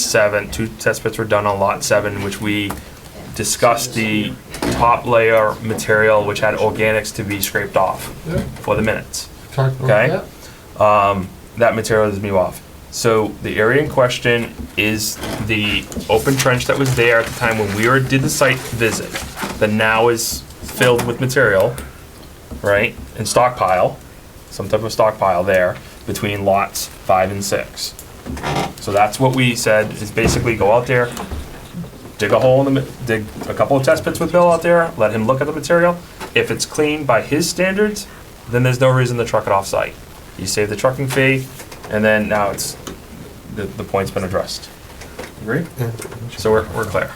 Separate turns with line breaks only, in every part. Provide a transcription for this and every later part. seven, two test pits were done on lot seven, which we discussed the top layer material, which had organics to be scraped off
Yeah.
for the minutes.
Talked about
Okay.
that.
Um, that material is new off. So the area in question is the open trench that was there at the time when we were, did the site visit, that now is filled with material, right? And stockpile, some type of stockpile there between lots five and six. So that's what we said is basically go out there, dig a hole in the, mi- dig a couple of test pits with Bill out there, let him look at the material. If it's clean by his standards, then there's no reason to truck it off-site. You save the trucking fee, and then now it's, the, the point's been addressed. Agree?
Yeah.
So we're, we're clear.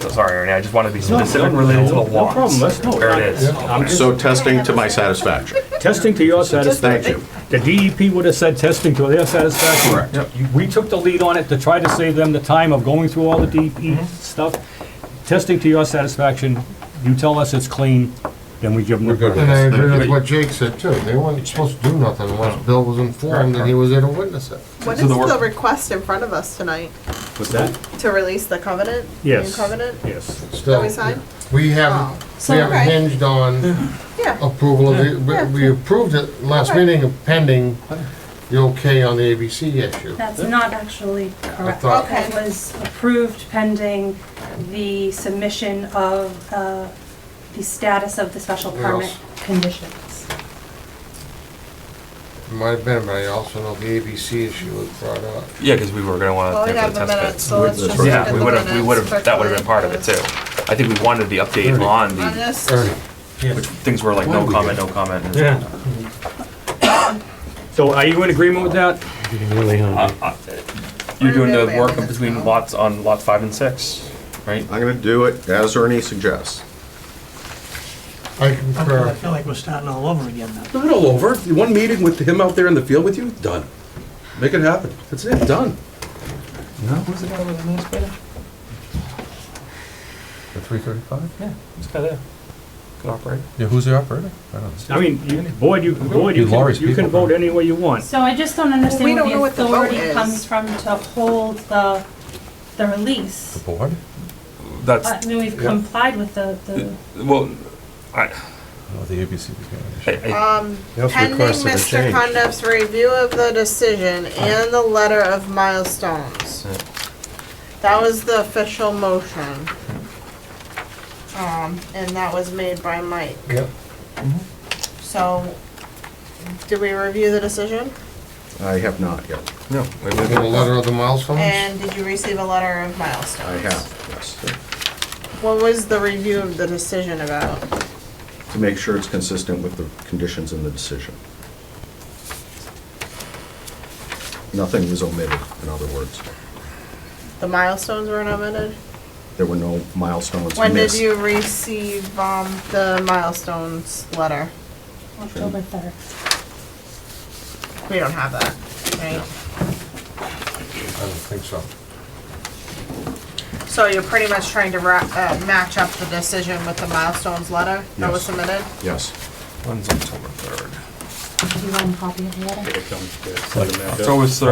So Sorry, Ernie, I just wanted to be
No,
specific
no,
related to the
no,
lots.
no problem, that's no-
Where it is.
Yeah.
I'm just
So testing to my satisfaction.
testing to your
Thank
satisfaction.
you.
The DEP would have said testing to their satisfaction.
Yep.
You- We took the lead on it to try to save them the time of going through all the DEP stuff. Testing to your satisfaction, you tell us it's clean, then we give them. We're
And I agree with what Jake said too. They weren't supposed to do nothing unless Bill was informed and he was there to witness it.
What
So
is
the work-
the request in front of us tonight?
What's that?
To release the covenant? New
Yes.
Covenant?
Yes.
That
Still,
we signed?
we
Oh.
haven't,
So,
we haven't
okay.
hinged on
Oh.
Yeah,
approval of the,
Yeah.
we- we approved it last
Okay.
meeting pending the okay on the ABC issue.
That's not actually correct.
thought-
Okay.
It was approved pending the submission of uh, the status of the special
What
permit
else?
conditions.
It Might have been, but I also know the ABC issue was brought up.
Yeah, because we were gonna
well,
wanna
we
think
have
of the
the
test
minutes,
pits.
so let's just look at
Yeah,
the
we would've,
minutes.
we would've, that would've been
quickly.
part of it too. I think we wanted the update on
On
the,
this,
Ernie,
which things were like, no comment, no comment. and-
Yeah. So are you in agreement with that?
Uh, uh, You're
We're
doing the
doing
work
it.
between lots, on lot five and six, right?
I'm gonna do it as Ernie suggests.
I
I
concur.
feel like we're starting all over again now.
Not all over. One meeting with him out there in the field with you, done. Make it happen. That's it, done.
Who's the guy with the nose better?
The three thirty-five?
This guy there. Good operator.
Yeah, who's the operator? I don't understand.
I mean, you- board, you, board, you
Be Laurie's
can, you can
people.
vote any way you want.
So I just don't
Well, we don't
understand
know
where
what
the
the vote
authority
is.
comes from to hold the, the release.
Board?
That's,
I mean, we've complied with the, the,
well, I,
Oh, the ABC.
I,
determination.
I,
um,
That's
pending
requested a
Mr.
change.
Condup's review of the decision and the letter of milestones.
Yeah.
That was the official motion. Um, and that was made by Mike.
Yep.
So, did we review the decision?
I have not yet.
no.
We did a letter of the milestones.
And did you receive a letter of milestones?
I have, yes.
What was the review of the decision about?
To make sure it's consistent with the conditions in the decision. Nothing was omitted, in other words.
The milestones were omitted?
There were no milestones
When did
missed.
you receive, um, the milestones letter?
October 3rd.
We don't have that, right?
I don't think so.
So you're pretty much trying to ra- uh, match up the decision with the milestones letter that was
Yes.
submitted?
Yes.
When's October third?
Do you want a copy of the letter?
October third,
Five days ago.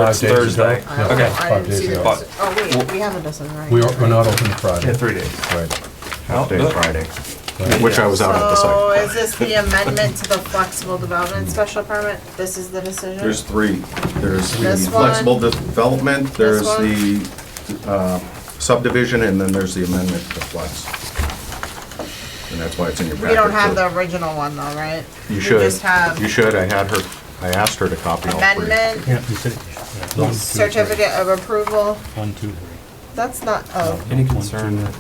Thursday.
I don't know.
Okay.
I
Five
didn't see
days
the,
ago.
deci- oh wait, we have a decision, right?
We are, we're not open Friday.
Yeah, three days.
Right.
Half day
Well,
Friday, which I was out at the
So
site.
is this the amendment to the flexible development special permit? This is the decision?
There's three. There's the
This one.
flexible development, there's
one.
the uh, subdivision, and then there's the amendment to flex. And that's why it's in your packet.
We don't have
so-
the original one though, right?
You
We
should.
just have
You should. I had her, I asked her to copy all three.
amendment,
Yeah, you said it. Yeah. One, two, three.
certificate of approval.
One, two, three.
That's not, oh,
Any concern that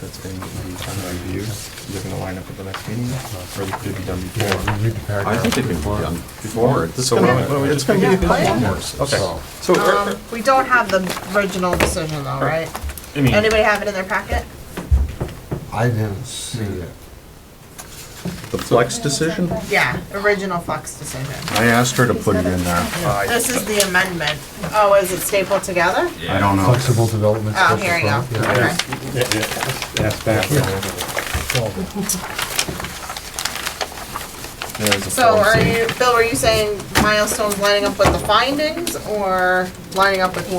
that's being reviewed, is it gonna line up with the next meeting, or could it be done before?
Read the paragraph.
I think it can be done before. It's
So
gonna-
what do we-
it's gonna be
Yeah,
a couple
yeah.
hours.
Okay,
So-
so, er-
um, we don't have the original decision though, right?
I mean,
Anybody have it in their packet?
I didn't see it.
The flex decision,
Yeah, original Fox decision.
I asked her to put it in there.
I,
This is the amendment. Oh, is it stapled together?
I don't know.
Flexible development.
Oh,
special
here we go.
permit, yeah.
Okay.
there's a
So
form
are
C.
you, Bill, were you saying milestones lining up with the findings or lining up with